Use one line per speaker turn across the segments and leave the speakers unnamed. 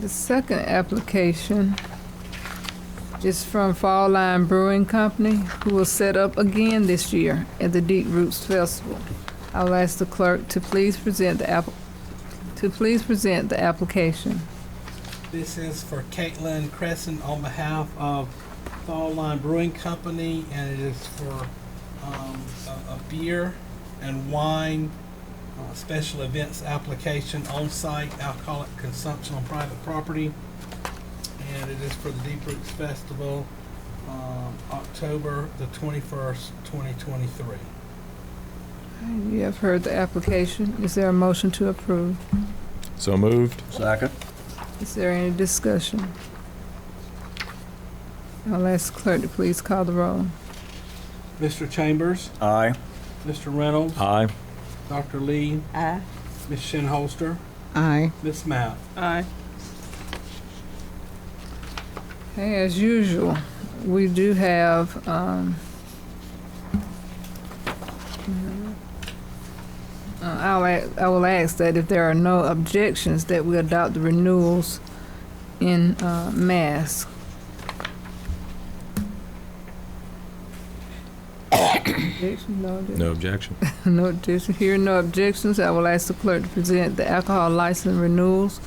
The second application is from Fall Line Brewing Company, who will set up again this year at the Deep Roots Festival. I'll ask the clerk to please present the app, to please present the application.
This is for Caitlin Crescent on behalf of Fall Line Brewing Company, and it is for um, a a beer and wine uh, special events application on-site alcoholic consumption on private property. And it is for the Deep Roots Festival, um, October the 21st, 2023.
You have heard the application. Is there a motion to approve?
So moved.
Second.
Is there any discussion? I'll ask the clerk to please call the roll.
Mr. Chambers,
Aye.
Mr. Reynolds,
Aye.
Dr. Lee,
Aye.
Ms. Shinholster,
Aye.
Ms. Mount.
Aye.
Hey, as usual, we do have, um, uh, I'll, a- I will ask that if there are no objections, that we adopt the renewals in, uh, mass. Objection, no objection.
No objection.
No objection, here no objections, I will ask the clerk to present the alcohol license renewals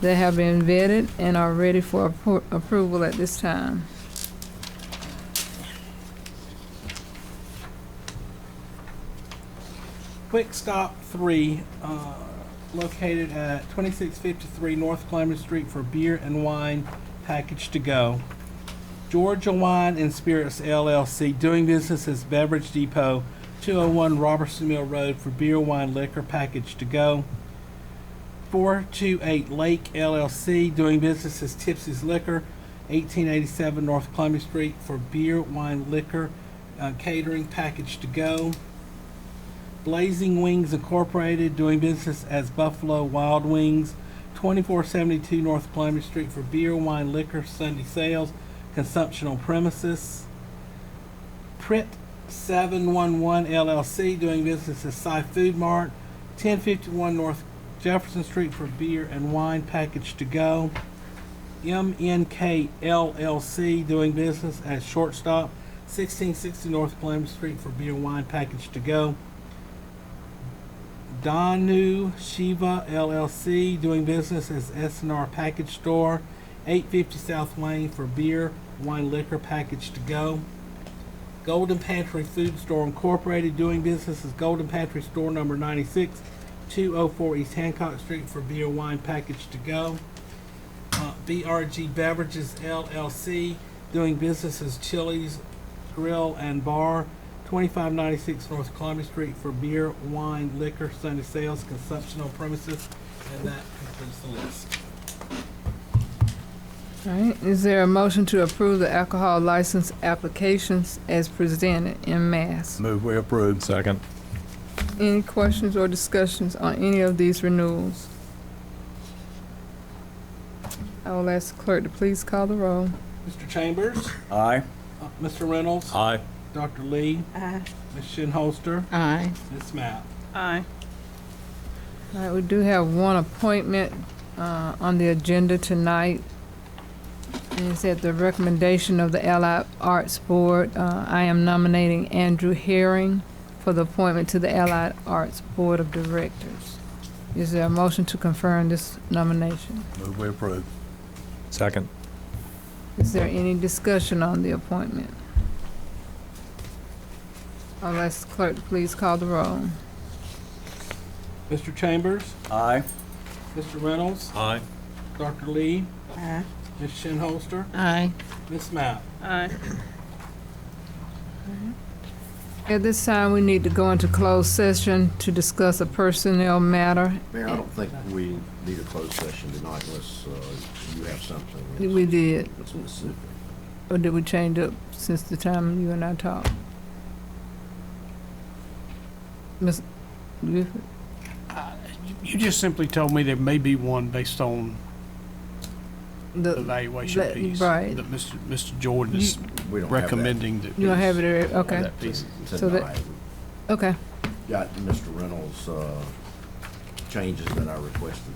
that have been vetted and are ready for appro- approval at this time.
Quick Stop Three, uh, located at 2653 North Clement Street for beer and wine package to go. Georgia Wine and Spirits LLC, doing business as Beverage Depot, 201 Robertson Mill Road for beer, wine, liquor package to go. 428 Lake LLC, doing business as Tipsy's Liquor, 1887 North Clement Street for beer, wine, liquor uh, catering package to go. Blazing Wings Incorporated, doing business as Buffalo Wild Wings, 2472 North Columbia Street for beer, wine, liquor, Sunday sales, consumption on premises. Prit 711 LLC, doing business as Cy Food Mart, 1051 North Jefferson Street for beer and wine package to go. MNK LLC, doing business as Shortstop, 1660 North Columbia Street for beer, wine package to go. Danu Shiva LLC, doing business as SNR Package Store, 850 South Wayne for beer, wine, liquor package to go. Golden Pantry Food Store Incorporated, doing business as Golden Pantry Store number 96, 204 East Hancock Street for beer, wine package to go. Uh, BRG Beverages LLC, doing business as Chili's Grill and Bar, 2596 North Columbia Street for beer, wine, liquor, Sunday sales, consumption on premises, and that concludes the list.
All right, is there a motion to approve the alcohol license applications as presented in mass?
Move we approve.
Second.
Any questions or discussions on any of these renewals? I will ask the clerk to please call the roll.
Mr. Chambers,
Aye.
uh, Mr. Reynolds,
Aye.
Dr. Lee,
Aye.
Ms. Shinholster,
Aye.
Ms. Map.
Aye.
All right, we do have one appointment uh, on the agenda tonight. And it's at the recommendation of the Allied Arts Board. Uh, I am nominating Andrew Herring for the appointment to the Allied Arts Board of Directors. Is there a motion to confirm this nomination?
Move we approve.
Second.
Is there any discussion on the appointment? I'll ask the clerk to please call the roll.
Mr. Chambers,
Aye.
Mr. Reynolds,
Aye.
Dr. Lee,
Aye.
Ms. Shinholster,
Aye.
Ms. Map.
Aye.
At this time, we need to go into closed session to discuss a personnel matter.
Mayor, I don't think we need a closed session tonight unless uh, you have something.
We did,
It's specific.
or did we change up since the time you and I talked? Ms. Griffith?
You just simply told me there may be one based on the
The-
evaluation
Let-
piece.
right.
That Mr. Mr. Jordan is
We don't have that.
recommending that.
You don't have it, there,
Have
okay,
that
piece.
So that-
Tonight,
okay.
We've got Mr. Reynolds' uh, changes that I requested